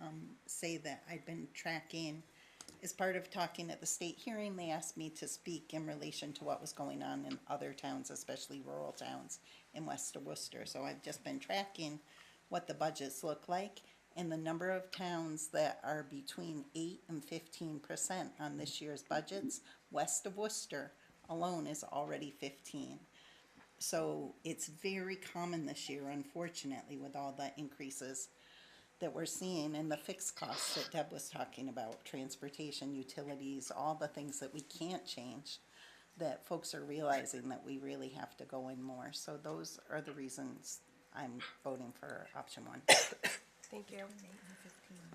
um, say that I've been tracking. As part of talking at the state hearing, they asked me to speak in relation to what was going on in other towns, especially rural towns in west of Worcester. So I've just been tracking what the budgets look like and the number of towns that are between eight and fifteen percent on this year's budgets. West of Worcester alone is already fifteen. So it's very common this year, unfortunately, with all the increases that we're seeing and the fixed costs that Deb was talking about, transportation, utilities, all the things that we can't change, that folks are realizing that we really have to go in more. So those are the reasons I'm voting for option one Thank you.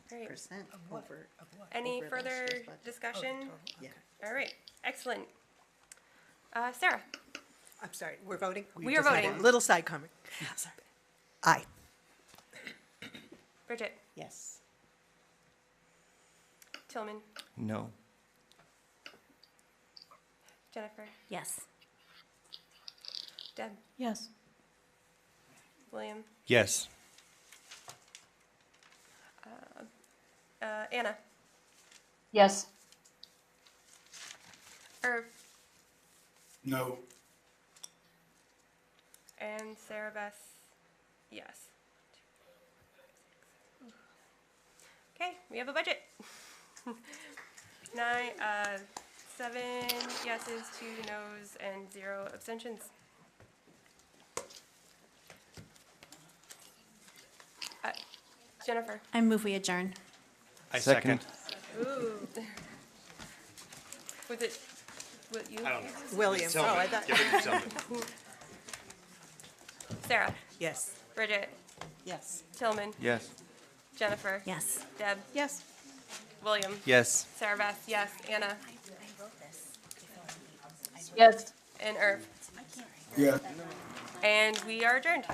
Great. percent over. Over Any last further year's budget. discussion? Yeah. All right, excellent. Uh, Sarah, I'm sorry, we're voting? We are just had a voting. Little side comment. Aye. Bridget, Yes. Tillman, No. Jennifer, Yes. Deb, Yes. William, Yes. uh, Anna, Yes. Irv, No. and Sarah Bess, yes. Okay, we have a budget. Nine, uh, seven yeses, two nos, and zero abstentions. Uh, Jennifer. I move we adjourn. I second. Ooh. Was it, what you? William, oh, I thought, Sarah, yes. Bridget, Yes. Tillman, Yes. Jennifer. Yes. Deb, Yes. William, Yes. Sarah Beth, yes, Anna, Yes. and Irv. Yeah. And we are adjourned.